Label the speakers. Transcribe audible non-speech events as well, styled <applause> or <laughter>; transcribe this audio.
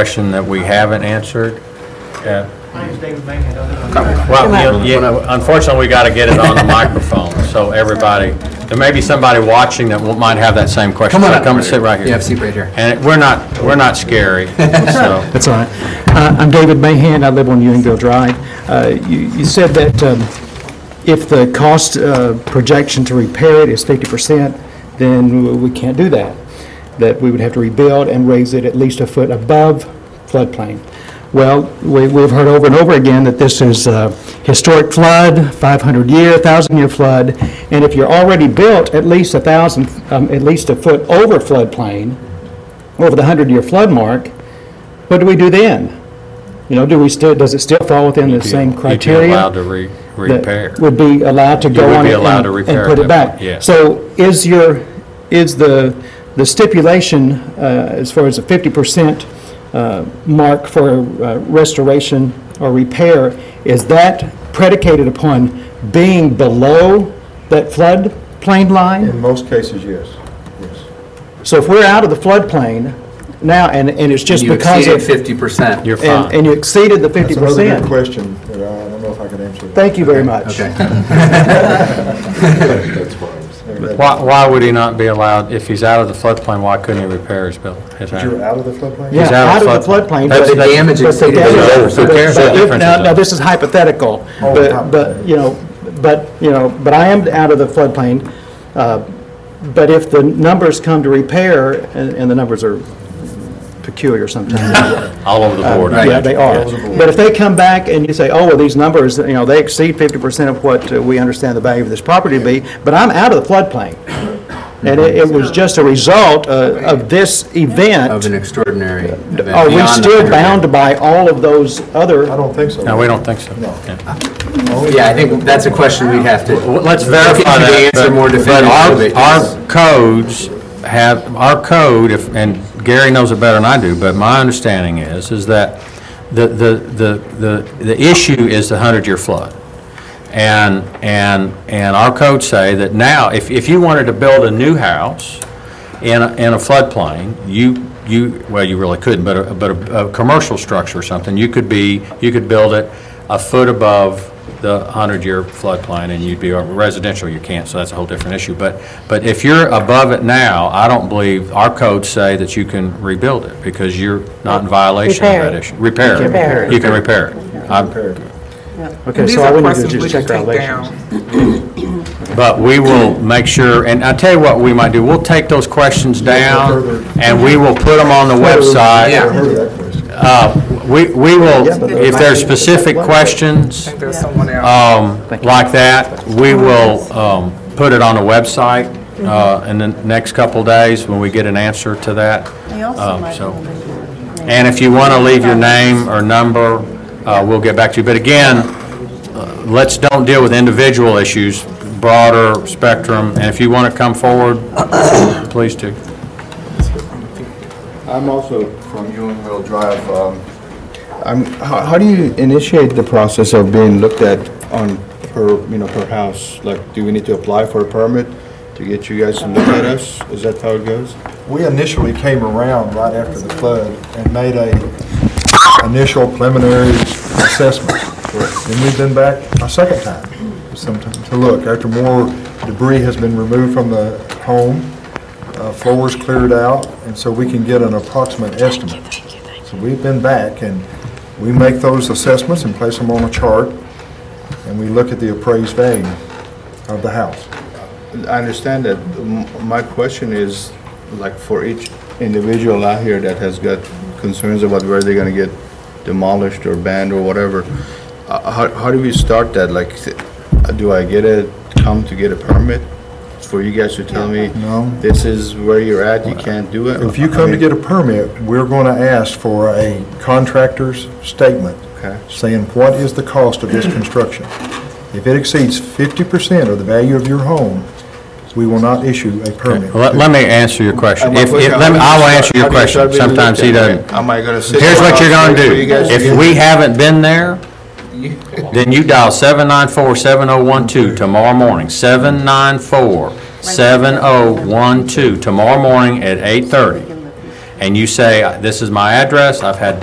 Speaker 1: question that we haven't answered. Yeah.
Speaker 2: My name's David Mangan, I live on-
Speaker 1: Well, you- you- unfortunately, we got to get it on the microphone, so everybody, there may be somebody watching that will- might have that same question.
Speaker 3: Come on
Speaker 1: So
Speaker 3: up.
Speaker 1: Come and sit right here.
Speaker 3: Yeah, seat right here.
Speaker 1: And we're not, we're not
Speaker 3: <laughs>
Speaker 1: scary, so.
Speaker 3: That's all right. Uh, I'm David Mahan, I live on Ewingville Drive. Uh, You you said that um, if the cost uh, projection to repair it is 50%, then we can't do that, that we would have to rebuild and raise it at least a foot above floodplain. Well, we- we've heard over and over again that this is a historic flood, 500-year, 1,000-year flood, and if you're already built at least 1,000, um, at least a foot over floodplain, over the 100-year flood mark, what do we do then? You know, do we still, does it still fall within the same criteria?
Speaker 1: You'd be allowed to re-
Speaker 3: that
Speaker 1: repair.
Speaker 3: Would be allowed to go
Speaker 1: would
Speaker 3: on
Speaker 1: be
Speaker 3: it
Speaker 1: allowed
Speaker 3: and
Speaker 1: to repair
Speaker 3: and put
Speaker 1: at
Speaker 3: it
Speaker 1: that
Speaker 3: back?
Speaker 1: point, yes.
Speaker 3: So is your, is the, the stipulation, uh, as far as the 50% uh, mark for uh, restoration or repair, is that predicated upon being below that floodplain line?
Speaker 4: In most cases, yes, yes.
Speaker 3: So if we're out of the floodplain now, and, and it's just
Speaker 5: You
Speaker 3: because
Speaker 5: exceeded
Speaker 3: of...
Speaker 5: fifty percent.
Speaker 1: You're
Speaker 3: And,
Speaker 1: fine.
Speaker 3: and you exceeded the 50%.
Speaker 4: That's another good question, that I don't know if I can answer. that.
Speaker 3: Thank you very much.
Speaker 5: Okay.
Speaker 1: Why, why would he not be allowed, if he's out of the floodplain, why couldn't he repair his bill? his house?
Speaker 4: You're out of the floodplain?
Speaker 3: Yeah,
Speaker 1: He's out
Speaker 3: out
Speaker 1: of
Speaker 3: of the floodplain.
Speaker 1: That's-
Speaker 3: but-
Speaker 1: The
Speaker 5: damage
Speaker 3: but the
Speaker 5: exceeded the
Speaker 3: damage-
Speaker 1: reserve, so
Speaker 3: but-
Speaker 1: there's no
Speaker 3: but if-
Speaker 1: difference
Speaker 3: Now,
Speaker 1: in
Speaker 3: now,
Speaker 1: that.
Speaker 3: this is hypothetical,
Speaker 4: Oh,
Speaker 3: but, but, you know, but, you know, but I am out of the floodplain. uh, But if the numbers come to repair, and, and the numbers are peculiar <laughs> sometimes.
Speaker 1: All over the board. I
Speaker 3: Yeah,
Speaker 1: imagine.
Speaker 3: they are. But if they come back and you say, oh, well, these numbers, you know, they exceed 50% of what uh, we understand the value of this property to be, but I'm out of the floodplain. And it, it was just a result uh, of this event.
Speaker 5: Of an extraordinary event.
Speaker 3: Are Oh, we
Speaker 5: beyond the
Speaker 3: still
Speaker 5: 100.
Speaker 3: bound by all of those
Speaker 4: I
Speaker 3: other,
Speaker 4: don't think so.
Speaker 1: No, we don't think so. Yeah.
Speaker 5: Yeah, I think that's a question we'd have to.
Speaker 1: Well, Let's
Speaker 5: Look
Speaker 1: verify
Speaker 5: into the
Speaker 1: that.
Speaker 5: answer
Speaker 1: but-
Speaker 5: more definitively.
Speaker 1: But our, our codes have, our code, if, and Gary knows it better than I do, but my understanding is, is that the, the, the, the the issue is the hundred-year flood. And, and, and our codes say that now, if, if you wanted to build a new house in, a- in a floodplain, you, you, well, you really couldn't, but a, but a, a commercial structure or something, you could be, you could build it a foot above the 100-year floodplain, and you'd be, residential, you can't, so that's a whole different issue. But, but if you're above it now, I don't believe, our codes say that you can rebuild it, because you're not in violation of
Speaker 6: Repair
Speaker 1: that
Speaker 6: it.
Speaker 1: issue. Repair it.
Speaker 6: Repair it.
Speaker 1: You can repair it. I'm-
Speaker 4: Compared.
Speaker 3: okay,
Speaker 7: These
Speaker 3: so all
Speaker 7: are
Speaker 3: we need to
Speaker 7: questions
Speaker 3: do
Speaker 7: we
Speaker 3: is
Speaker 7: should
Speaker 3: check our
Speaker 7: take
Speaker 3: relations.
Speaker 7: down.
Speaker 1: But we will make sure, and I tell you what we might do, we'll take those questions down, and we will put them on the website.
Speaker 4: I heard that question.
Speaker 1: Uh, We we will, if there's specific questions
Speaker 7: I think there's someone else.
Speaker 1: um, like that, we will um, put it on the website uh, in the next couple days when we get an answer to that.
Speaker 6: They also
Speaker 1: Um,
Speaker 6: might
Speaker 1: so-
Speaker 6: want to-
Speaker 1: And if you want to leave your name or number, uh, we'll get back to you. But again, uh, let's don't deal with individual issues, broader spectrum, and if you want to come forward, <coughs> please do.
Speaker 4: I'm also from Ewingville Drive. um, I'm, how how do you initiate the process of being looked at on per, you know, per house? Like, do we need to apply for a permit to get you guys to look at us? Is that how it goes? We initially came around right after the flood and made a initial preliminary assessment. Then we've been back a second time, sometime, to look, after more debris has been removed from the home uh, floors cleared out, and so we can get an approximate estimate. So we've been back, and we make those assessments and place them on a chart, and we look at the appraised value of the house.
Speaker 8: I understand that. M- My question is, like, for each individual out here that has got concerns about where they're gonna get demolished or banned or whatever, uh, how, how do we start that? Like, uh, do I get a, come to get a permit? For you guys to tell me,
Speaker 4: No.
Speaker 8: this is where you're at, you can't do it?
Speaker 4: If you come to get a permit, we're going to ask for a contractor's statement
Speaker 8: Okay.
Speaker 4: saying what is the cost of this construction. If it exceeds 50% of the value of your home, we will not issue a permit.
Speaker 1: Let let me answer your question. If, if- let me- I will answer your question. Sometimes he doesn't.
Speaker 8: Am I gonna sit?
Speaker 1: Here's what you're gonna
Speaker 8: for
Speaker 1: do.
Speaker 8: you guys to
Speaker 1: If
Speaker 8: get-
Speaker 1: we haven't been there, then you dial 794-7012 tomorrow morning, 794-7012 tomorrow morning at 8:30. and you say, this is my address, I've had